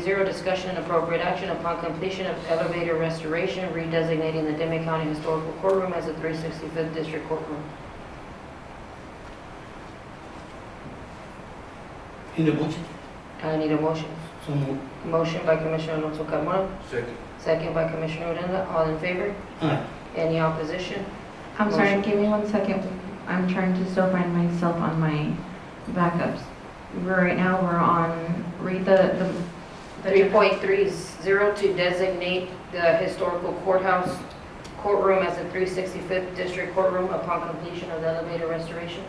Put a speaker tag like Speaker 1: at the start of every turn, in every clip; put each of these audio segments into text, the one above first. Speaker 1: zero, discussion and appropriate action upon completion of elevator restoration, redesignating the Demet County Historical Courtroom as a 365th District Courtroom.
Speaker 2: Need a motion?
Speaker 1: I need a motion.
Speaker 2: So moved.
Speaker 1: Motion by Commissioner Alonso Carmona,
Speaker 3: Second.
Speaker 1: second by Commissioner Odena. All in favor?
Speaker 2: Aye.
Speaker 1: Any opposition?
Speaker 4: I'm sorry, give me one second. I'm trying to still find myself on my backups. We're, right now, we're on, read the, the.
Speaker 1: 3.30 to designate the historical courthouse courtroom as a 365th District Courtroom upon completion of the elevator restoration.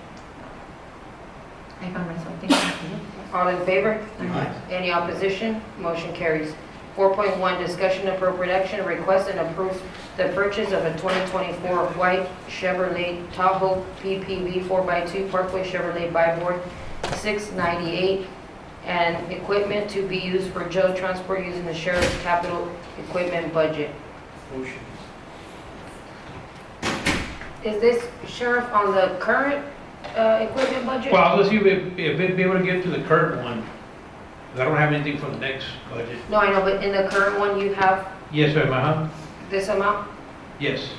Speaker 4: I found myself, thank you.
Speaker 1: All in favor?
Speaker 2: Aye.
Speaker 1: Any opposition? Motion carries. 4.1, discussion appropriate action, request and approve the purchase of a 2024 white Chevrolet Tahoe PPV 4x2 Parkway Chevrolet buy board 698 and equipment to be used for jail transport using the sheriff's capital equipment budget.
Speaker 3: Motion.
Speaker 1: Is this sheriff on the current uh, equipment budget?
Speaker 5: Well, let's see if we, if we'd be able to get to the current one. 'cause I don't have anything for the next budget.
Speaker 1: No, I know, but in the current one, you have
Speaker 5: Yes, ma'am, uh-huh,
Speaker 1: this amount?
Speaker 5: yes.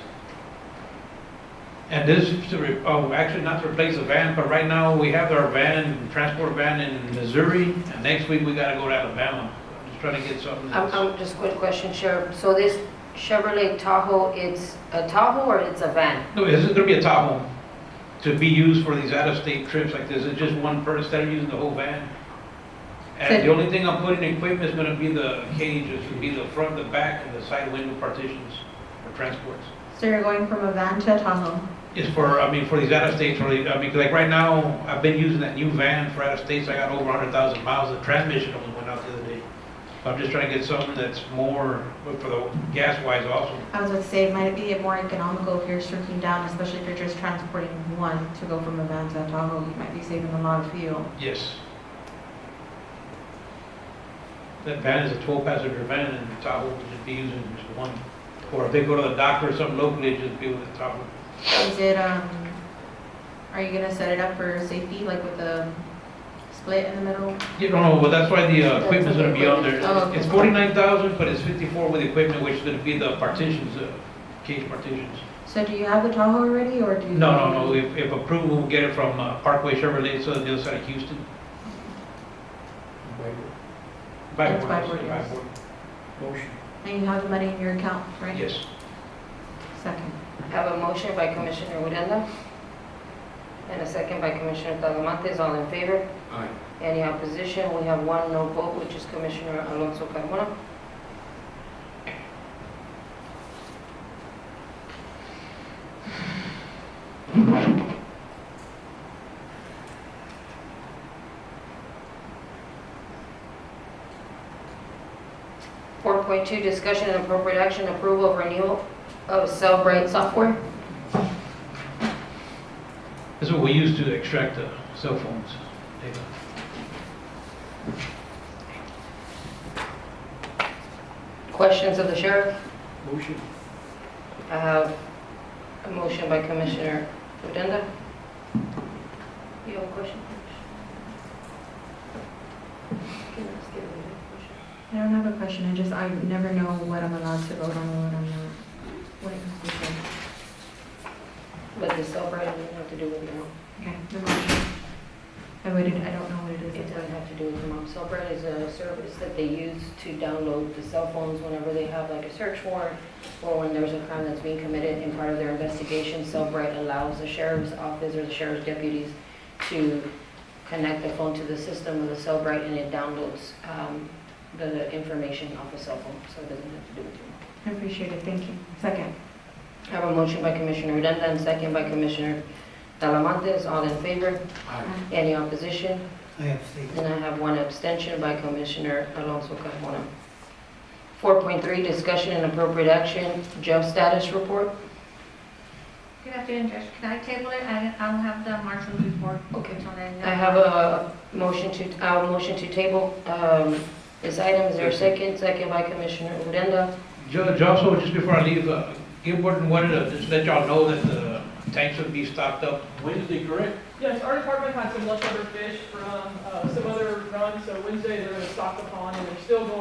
Speaker 5: And this is to, re- oh, actually not to replace the van, but right now we have our van, transport van in Missouri. And next week we gotta go to Alabama. I'm Just trying to get something
Speaker 1: I'm,
Speaker 5: that's,
Speaker 1: I'm just quick question, Sheriff. So this Chevrolet Tahoe, it's a Tahoe or it's a van?
Speaker 5: no, this is gonna be a Tahoe to be used for these out-of-state trips like this. It's just one person, instead of using the whole van. And the
Speaker 4: So-
Speaker 5: only thing I'm putting in equipment is gonna be the cages, gonna be the front, the back, and the side window partitions for transports.
Speaker 4: So you're going from a van to a Tahoe?
Speaker 5: is for, I mean, for these out-of-states, really, I mean, 'cause like right now, I've been using that new van for out-of-states, I got over hundred thousand miles, the transmission only went out the other day. So I'm just trying to get something that's more, but for the gas-wise also.
Speaker 4: I was about to say, might it be more economical if you're shrinking down, especially if you're just transporting one to go from a van to a Tahoe? You might be saving a lot of fuel.
Speaker 5: Yes. That van is a twelve-passenger van, and Tahoe would just be using just one. Or if they go to the doctor or something locally, it'd just be with the Tahoe.
Speaker 4: Is it, um, are you gonna set it up for safety, like with a split in the middle?
Speaker 5: You don't know, but that's why the uh, equipment's gonna be on there.
Speaker 4: Oh, okay.
Speaker 5: It's forty-nine thousand, but it's fifty-four with equipment, which is gonna be the partitions, uh, cage partitions.
Speaker 4: So do you have the Tahoe already, or do you?
Speaker 5: No, no, no, if, if approved, we'll get it from uh, Parkway Chevrolet, so the other side of Houston. By
Speaker 4: That's
Speaker 5: board,
Speaker 4: by
Speaker 5: I
Speaker 4: board,
Speaker 5: said,
Speaker 4: yes.
Speaker 5: board.
Speaker 3: Motion.
Speaker 4: And you have the money in your account, right?
Speaker 5: Yes,
Speaker 4: Second.
Speaker 1: Have a motion by Commissioner Uranda and a second by Commissioner Talamantes. All in favor?
Speaker 3: Aye.
Speaker 1: Any opposition? We have one no vote, which is Commissioner Alonso Carmona. Four point two, discussion and appropriate action, approval of renewal of Cellbrite software.
Speaker 5: this is what we use to extract the cell phones. data.
Speaker 1: Questions of the sheriff?
Speaker 3: Motion.
Speaker 1: I have a motion by Commissioner Odena. You have a question?
Speaker 4: I don't have a question, I just, I never know what I'm allowed to vote on and what I'm not. When it comes to this.
Speaker 1: But the Cellbrite doesn't have to do with your mom.
Speaker 4: Okay, the motion. I waited, I don't know what it
Speaker 1: It
Speaker 4: is.
Speaker 1: doesn't have to do with your mom. Cellbrite is a service that they use to download the cell phones whenever they have like a search warrant or when there's a crime that's being committed in part of their investigation. Cellbrite allows the sheriff's office or the sheriff's deputies to connect the phone to the system with a Cellbrite and it downloads um, the information off a cell phone, so it doesn't have to do with your mom.
Speaker 4: I appreciate it, thank you. Second.
Speaker 1: I have a motion by Commissioner Uranda and second by Commissioner Talamantes. All in favor?
Speaker 3: Aye.
Speaker 1: Any opposition?
Speaker 2: I abstain.
Speaker 1: And I have one abstention by Commissioner Alonso Carmona. 4.3, discussion and appropriate action, jail status report.
Speaker 6: Good afternoon, Judge. Can I table it? I- I'll have the marshal's report.
Speaker 1: Okay.
Speaker 6: until then.
Speaker 1: I have a motion to, I have a motion to table um, this item. Is there a second? Second by Commissioner Uranda.
Speaker 5: Judge, also, just before I leave, uh, Gilbert wanted to just let y'all know that the tanks would be stocked up
Speaker 3: Wednesday, correct?
Speaker 7: Yes, our department had some leftover fish from uh, some other runs, so Wednesday they're going to stock the pond, and they're still going